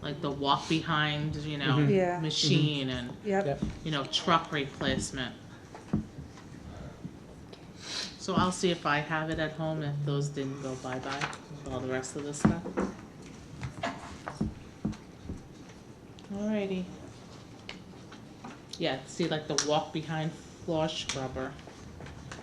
like the walk behind, you know, Mhm. Yeah. machine and, Yep, Yep. you know, truck replacement. So I'll see if I have it at home, if those didn't go bye-bye, all the rest of the stuff. Alrighty. Yeah, see like the walk behind floor scrubber.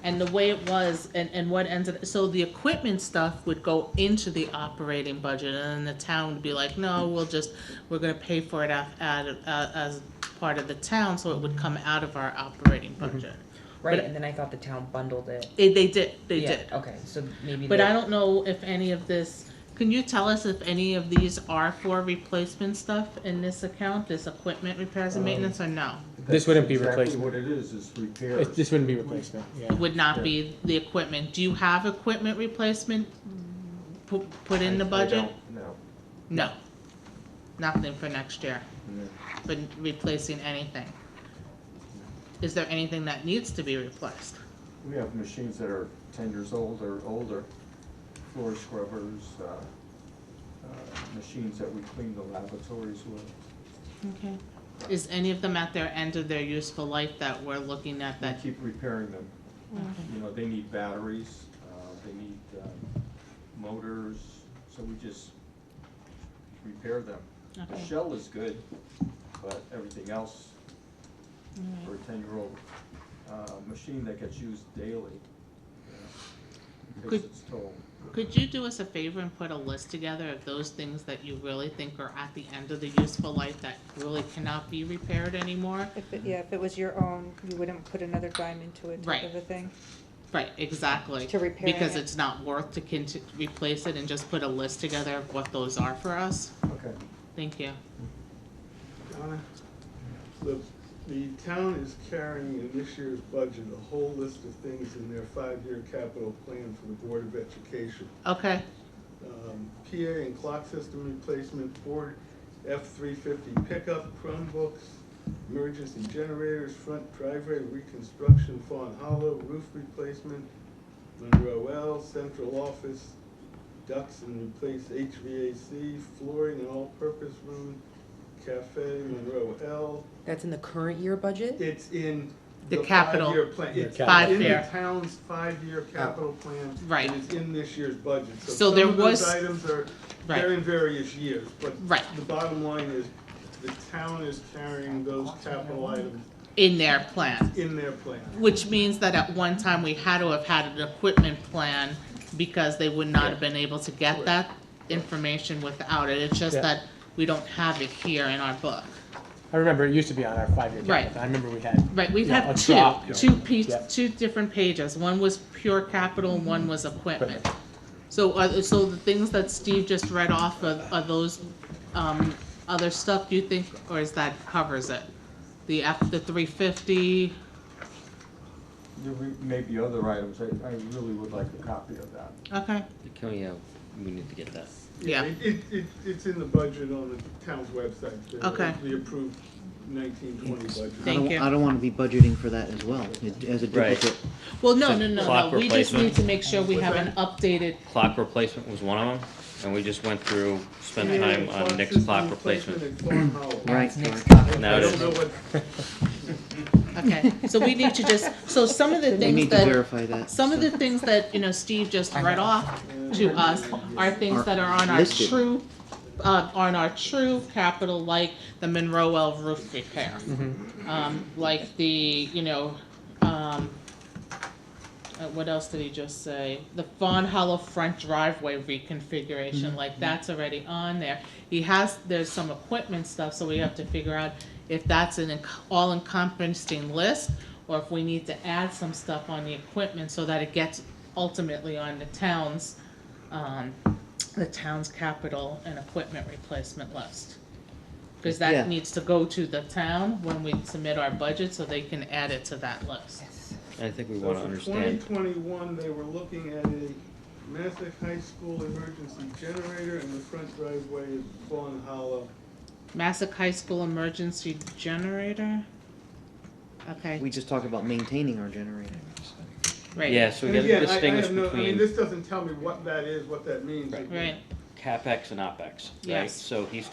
And the way it was, and, and what ended, so the equipment stuff would go into the operating budget, and then the town would be like, no, we'll just, we're gonna pay for it af, at, uh, as part of the town, so it would come out of our operating budget. Right, But- and then I thought the town bundled it. It, they did, they Yeah, did. Okay, so maybe. But the- I don't know if any of this, can you tell us if any of these are for replacement stuff in this account, this equipment repairs and maintenance, or no? This wouldn't be That's replacement. Exactly what it is, is repair. It- This wouldn't be replacement, It yeah. Would not be the equipment, do you have equipment replacement pu- put in the budget? No. No, nothing for next year, no. but replacing anything. Is there anything that needs to be replaced? We have machines that are ten years old or older, floor scrubbers, uh, uh, machines that we clean the laboratories with. Okay. Is any of them at their end of their useful life that we're looking at We that? keep repairing them. Okay. You know, they need batteries, uh, they need uh, motors, so we just repair them. The Okay. shell is good, but everything else Alright. for a ten-year-old uh, machine that gets used daily, you know, takes Could- its toll. Could you do us a favor and put a list together of those things that you really think are at the end of the useful life that really cannot be repaired anymore? if it, yeah, if it was your own, you wouldn't put another dime into it Right. type of a thing. Right, exactly. To repair Because it. it's not worth to conti- replace it and just put a list together of what those are for us? Okay. Thank you. Donna, The, the town is carrying in this year's budget a whole list of things in their five-year capital plan for the Board of Education. Okay, Um, PA and clock system replacement, Ford F-350 pickup, Chromebooks, emergency generators, front driveway reconstruction, Fawn Hollow, roof replacement, Monroe L, central office, ducts and replace HVAC, flooring and all-purpose room, cafe, Monroe L. That's in the current year budget? It's in The the capital. five-year plan. Yeah, It's capital. in Five-year. Oh, the town's five-year capital plan. Right. And it's in this year's budget. So there was- Some of those items are, Right. they're in various years, but Right. the bottom line is, the town is carrying those capital items in their plan, in their plan. which means that at one time we had to have had an equipment plan because they would not have been able to get that information without it. It's just Yeah. that we don't have it here in our book. I remember it used to be on our five-year Right. capital. I remember we had, Right, we've Yeah, had a two, drop. two piece, Yeah. two different pages, one was pure capital, and one was equipment. Equipment. So, uh, so the things that Steve just read off of, are those, um, other stuff you think, or is that covers it? The F, the three fifty, There re- may be other items, I, I really would like a copy of that. okay, Can we, uh, we need to get that. Yeah. It, it, it- it's in the budget on the town's website. the- Okay. The approved nineteen twenty budget. Thank I don't- you. I don't want to be budgeting for that as well, it- as a Right. duplicate. well, no, no, no, Clock no, we just replacement. need to make sure we have an updated, Clock replacement was one of them, and we just went through, spent Yeah, time on Nick's system clock replacement. and Fawn Hollow. Right. Now I it don't is, know what, okay, so we need to just, so some of the We things need to that, verify that. some of so. the things that, you know, Steve just read off uh, to us are things that are on our Listed. true, uh, on our true capital, like the Monroe L roof repair. Um, like the, you know, um, uh, what else did he just say? The Fawn Hollow front driveway reconfiguration, like that's already on there. He has, there's some equipment stuff, so we have to figure out if that's an en- all encompassing list or if we need to add some stuff on the equipment so that it gets ultimately on the town's, um, the town's capital and equipment replacement list. Cause Yeah. that needs to go to the town when we submit our budget, so they can add it to that list. I think we So wanna for twenty understand, twenty-one, they were looking at a Massac High School emergency generator and the front driveway is Fawn Hollow. Massac High School emergency generator? Okay, We just talked about maintaining our generator. right. yeah, so we And gotta again, I, I distinguish have no, I mean, between this doesn't tell me what that is, what that means. Right. Right. CapEx and OpEx, right? Yes. So he's